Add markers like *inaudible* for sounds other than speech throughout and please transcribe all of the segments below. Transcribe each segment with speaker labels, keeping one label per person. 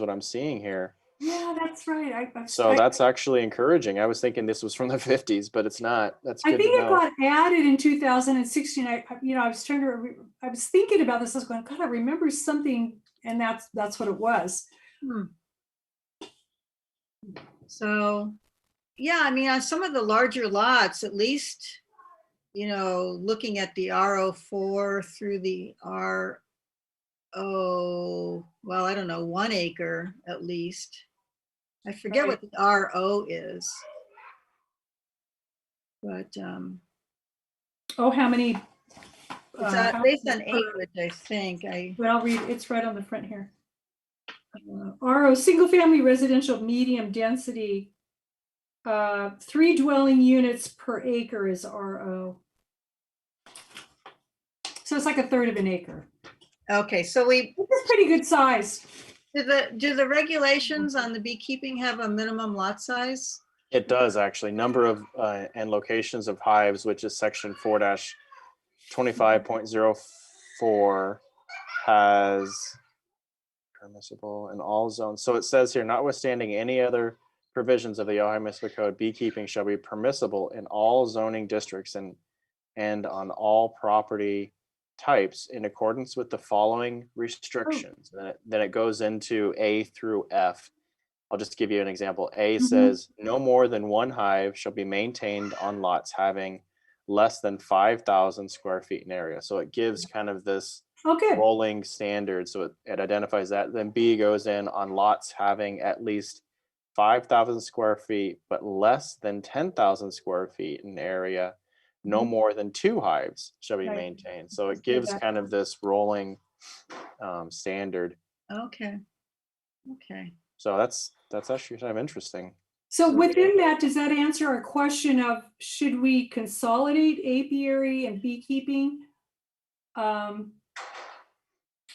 Speaker 1: what I'm seeing here.
Speaker 2: Yeah, that's right. I- I,
Speaker 1: So
Speaker 2: I-
Speaker 1: that's actually encouraging. I was thinking this was from the *laughs* 50s, but it's not. That's
Speaker 2: I
Speaker 1: good
Speaker 2: think
Speaker 1: to
Speaker 2: it
Speaker 1: know.
Speaker 2: got added in 2016. I, I- you know, I was trying to, re- I was thinking about this. I was going, God, I remember something, and that's that's what it was.
Speaker 3: Hmm. So, yeah, I mean, on some of the larger lots, at least, you know, looking at the RO four through the R O, well, I don't know, one acre at least. I forget what the RO is. But, um,
Speaker 2: Oh, how many?
Speaker 3: it's
Speaker 2: uh,
Speaker 3: uh,
Speaker 2: how
Speaker 3: based on
Speaker 2: many per-
Speaker 3: acreage, I think, I,
Speaker 2: But I'll read, it's right on the front here.
Speaker 3: uh,
Speaker 2: RO, single family residential, medium density. Uh, three dwelling units per acre is RO. So it's like a third of an acre.
Speaker 3: okay, so we,
Speaker 2: It's pretty good size.
Speaker 3: do the, do the regulations on the beekeeping have a minimum lot size?
Speaker 1: It does actually. Number of uh, and locations of hives, which is section 4 dash 25.04, has permissible in all zones. So it says here, notwithstanding any other provisions of the Ohio Municipal Code, beekeeping shall be permissible in all zoning districts and and on all property types in accordance with the following restrictions. And Then it, then it goes into A through F. I'll just give you an example. A
Speaker 2: Mhm.
Speaker 1: says no more than one hive shall be maintained on lots having less than 5,000 square feet in area. So it gives kind of this
Speaker 2: Oh, good.
Speaker 1: rolling standard, so it, it identifies that. Then B goes in on lots having at least five thousand square feet, but less than ten thousand square feet in area. No
Speaker 2: Mhm.
Speaker 1: more than two hives shall be
Speaker 2: Right.
Speaker 1: maintained. So
Speaker 2: Let's
Speaker 1: it
Speaker 2: do
Speaker 1: gives
Speaker 2: that.
Speaker 1: kind of this rolling um, standard.
Speaker 3: Okay. Okay.
Speaker 1: So that's that's actually kind of interesting.
Speaker 2: So
Speaker 3: So-
Speaker 2: within that, does that answer our question of should we consolidate apiary and beekeeping? Um,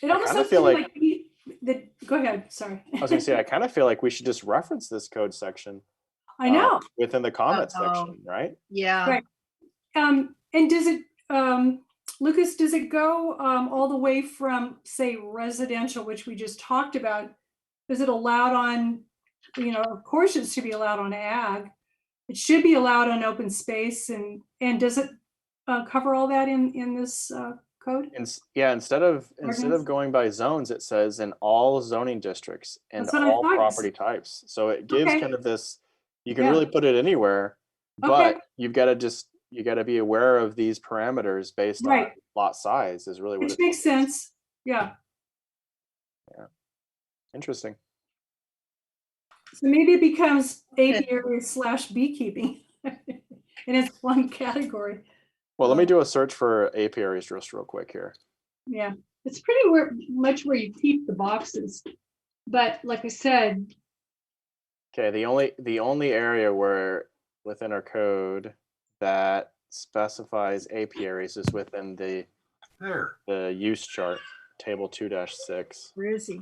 Speaker 2: It
Speaker 1: I
Speaker 2: almost
Speaker 1: kinda
Speaker 2: sounds to
Speaker 1: feel
Speaker 2: me
Speaker 1: like-
Speaker 2: like, we- the, go ahead, sorry.
Speaker 1: I was gonna say I kind of feel like we should just reference this code section.
Speaker 2: I
Speaker 1: uh,
Speaker 2: know.
Speaker 1: within the comment
Speaker 3: Uh-oh.
Speaker 1: section, right?
Speaker 3: Yeah.
Speaker 2: Right. Um, and does it, um, Lucas, does it go, um, all the way from, say, residential, which we just talked about? Is it allowed on, you know, of course it should be allowed on ag. It should be allowed on open space and, and does it, uh, cover all that in, in this, uh, code?
Speaker 1: And yeah, instead of instead
Speaker 2: Ordinance?
Speaker 1: of going by zones, it says in all zoning districts and
Speaker 2: That's what I
Speaker 1: all
Speaker 2: thought it
Speaker 1: property types. So it gives
Speaker 2: Okay.
Speaker 1: kind of this, you can
Speaker 2: Yeah.
Speaker 1: really put it anywhere,
Speaker 2: Okay.
Speaker 1: but you've got to just you got to be aware of these parameters based on
Speaker 2: Right.
Speaker 1: lot size is really what
Speaker 2: Which
Speaker 1: it's
Speaker 2: makes sense. Yeah.
Speaker 1: interesting.
Speaker 2: So maybe it becomes apiary slash beekeeping. *laughs* And it's one category.
Speaker 1: Well, let me
Speaker 2: Yeah.
Speaker 1: do a search for apiaries just real quick here.
Speaker 2: Yeah, it's pretty where, much where you keep the boxes. But like I said,
Speaker 1: Okay, the only the only area where within our code that specifies apiaries is within the
Speaker 4: There.
Speaker 1: the use chart, table two dash six.
Speaker 3: Where is he?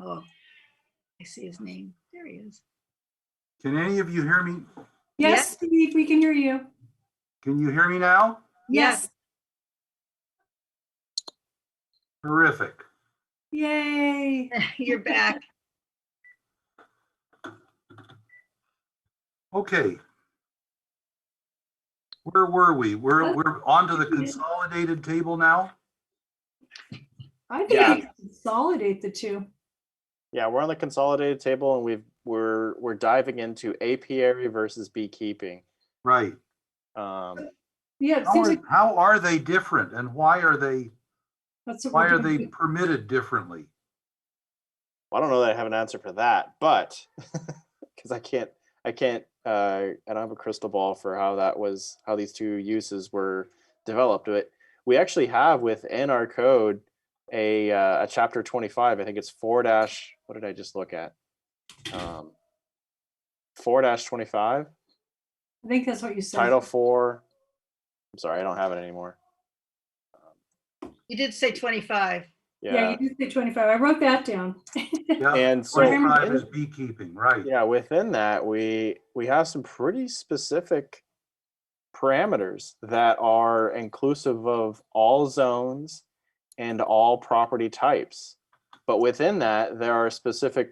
Speaker 3: Oh, I see his name. There he is.
Speaker 4: Can any of you hear me?
Speaker 2: yes, Steve, we can hear you.
Speaker 4: Can you hear me now?
Speaker 3: Yes.
Speaker 4: Terrific.
Speaker 2: Yay.
Speaker 3: *laughs* You're back.
Speaker 4: Okay. Where were we? We're,
Speaker 2: Okay.
Speaker 4: we're onto the consolidated table now?
Speaker 2: I
Speaker 1: Yeah.
Speaker 2: think we can consolidate the two.
Speaker 1: Yeah, we're on the consolidated table and we've we're we're diving into apiary versus beekeeping.
Speaker 4: Right.
Speaker 1: Um,
Speaker 2: Yeah, it
Speaker 4: How
Speaker 2: seems
Speaker 4: are,
Speaker 2: like
Speaker 4: how are they different and why are they,
Speaker 2: that's. what
Speaker 4: why
Speaker 2: we're
Speaker 4: are they
Speaker 2: doing. *laughs*
Speaker 4: permitted differently?
Speaker 1: I don't know that I have an answer for that, but *laughs* because I can't, I can't, uh, I don't have a crystal ball for how that was, how these two uses were developed. But we actually have within our code a uh, a chapter twenty five. I think it's four dash. What did I just look at? Um, four dash twenty five.
Speaker 2: I think that's what you said.
Speaker 1: Title four. I'm sorry, I don't have it anymore.
Speaker 3: You did say 25.
Speaker 2: Yeah,
Speaker 1: Yeah,
Speaker 2: you did say twenty-five. I wrote that down.
Speaker 4: Yeah,
Speaker 1: and so
Speaker 4: twenty-five
Speaker 1: in-
Speaker 4: is beekeeping, right?
Speaker 1: yeah within that we we have some pretty specific parameters that are inclusive of all zones and all property types But within that, there are specific